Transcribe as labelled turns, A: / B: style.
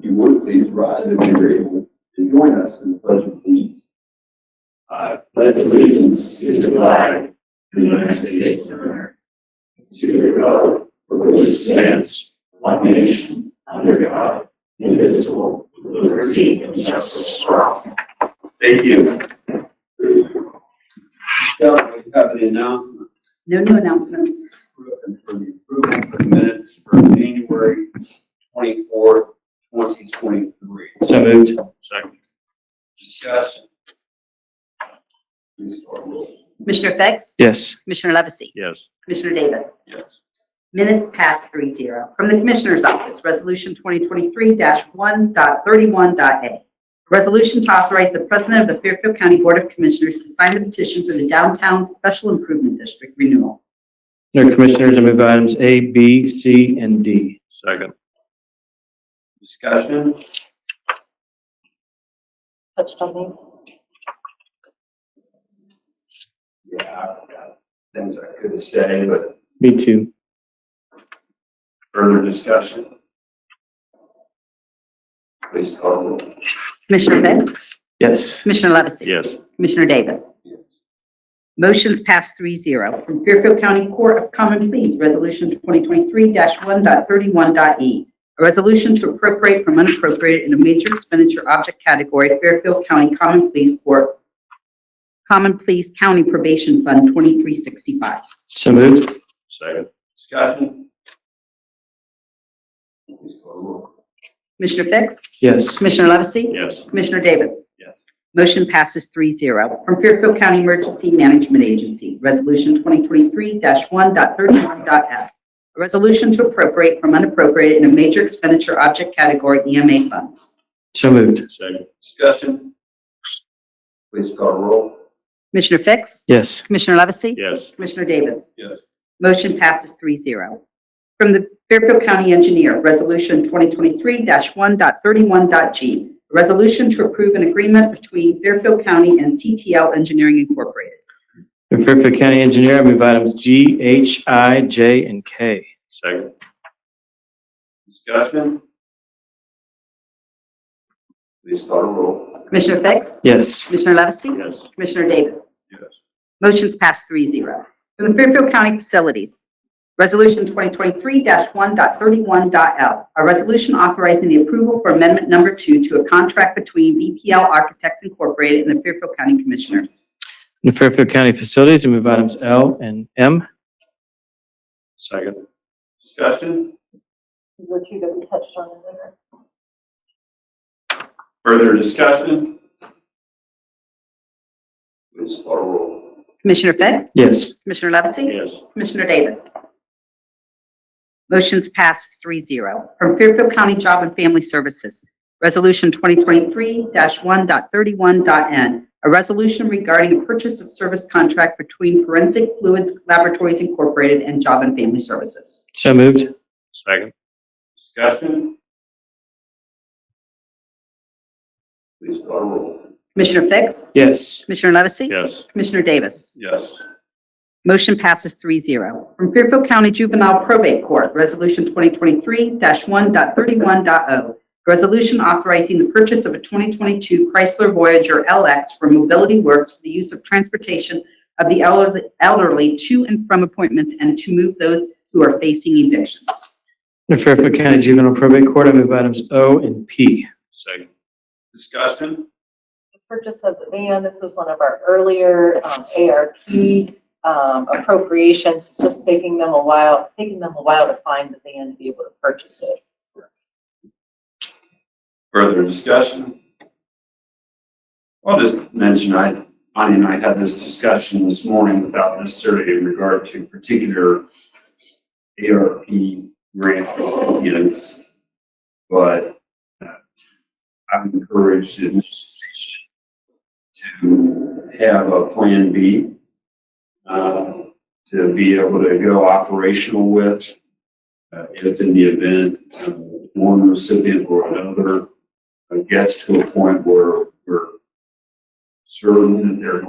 A: you would please rise if you're able to join us in the pledge of allegiance. I pledge allegiance to the flag of the United States of America, to the republic for which it stands, one nation, under God, indivisible, with liberty and justice for all. Thank you. Scott, do you have any announcements?
B: No new announcements.
A: and for the approval for the minutes for January twenty-fourth, twenty twenty-three.
C: So moved. Second.
A: Discussion. Please call roll.
B: Commissioner Fix?
C: Yes.
B: Commissioner Levesey?
C: Yes.
B: Commissioner Davis?
A: Yes.
B: Minutes past three zero. From the Commissioner's Office, Resolution 2023-1.31.a. Resolution to authorize the President of the Fairfield County Board of Commissioners to sign the petition for the Downtown Special Improvement District renewal.
C: Under Commissioners, I move items A, B, C, and D. Second.
A: Discussion.
D: touched on these.
A: Yeah, I've got uh, things I could say, but
C: Me too.
A: further discussion. Please call roll.
B: Commissioner Fix?
C: Yes.
B: Commissioner Levesey?
C: Yes.
B: Commissioner Davis?
A: Yes.
B: Motion's passed three zero. From Fairfield County Court of Common Pleas, Resolution 2023-1.31.e. E. A resolution to appropriate from unappropriated in a major expenditure object category Fairfield County Common Pleas Court, Common Pleas County Probation Fund 2365.
C: So moved.
A: Second. Discussion. Please call roll.
B: Commissioner Fix?
C: Yes.
B: Commissioner Levesey?
A: Yes.
B: Commissioner Davis?
A: Yes.
B: Motion passes three zero. From Fairfield County Emergency Management Agency, Resolution 2023-1.31.f. A resolution to appropriate from unappropriated in a major expenditure object category EMA funds.
C: So moved.
A: Second. Discussion. Please call roll.
B: Commissioner Fix?
C: Yes.
B: Commissioner Levesey?
A: Yes.
B: Commissioner Davis?
A: Yes.
B: Motion passes three zero. From the Fairfield County Engineer, Resolution 2023-1.31.g. A resolution to approve an agreement between Fairfield County and CTL Engineering Incorporated.
C: Under Fairfield County Engineer, I move items G, H, I, J, and K.
A: Second. Discussion? Please call the roll.
B: Commissioner Fix?
C: Yes.
B: Commissioner Levesey?
A: Yes.
B: Commissioner Davis?
A: Yes.
B: Motion's passed three zero. From the Fairfield County Facilities, Resolution 2023-1.31.L, a resolution authorizing the approval for Amendment Number Two to a contract between BPL Architects Incorporated and the Fairfield County Commissioners.
C: Under Fairfield County Facilities, I move items L and M.
A: Second. Discussion?
D: These were two that we touched on in there.
A: Further discussion? Please call the roll.
B: Commissioner Fix?
C: Yes.
B: Commissioner Levesey?
A: Yes.
B: Commissioner Davis? Motion's passed 3-0 From Fairfield County Job and Family Services, Resolution 2023-1.31.n, a resolution regarding a purchase of service contract between Forensic Fluids Laboratories Incorporated and Job and Family Services.
C: So moved.
A: Second. Discussion? Please call the roll.
B: Commissioner Fix?
C: Yes.
B: Commissioner Levesey?
A: Yes.
B: Commissioner Davis?
A: Yes.
B: Motion passes 3-0. From Fairfield County Juvenile Probate Court, Resolution 2023-1.31.o. oh. Resolution authorizing the purchase of a 2022 Chrysler Voyager LX for Mobility Works for the use of transportation of the elderly- elderly to and from appointments and to move those who are facing evictions.
C: Under Fairfield County Juvenile Probate Court, I move items O and P.
A: Second. Discussion?
D: The Purchase of the van, this was one of our earlier um, ARP um, appropriations. It's just taking them a while, taking them a while to find the van to be able to purchase it.
A: Further discussion? I'll just mention, I, Bonnie and I had this discussion this morning without necessarily in regard to particular ARP grant units, but uh, I'm encouraged in this decision to have a plan B, uh, to be able to go operational with, uh, if in the event uh, one recipient or another uh, gets to a point where we're certain that they're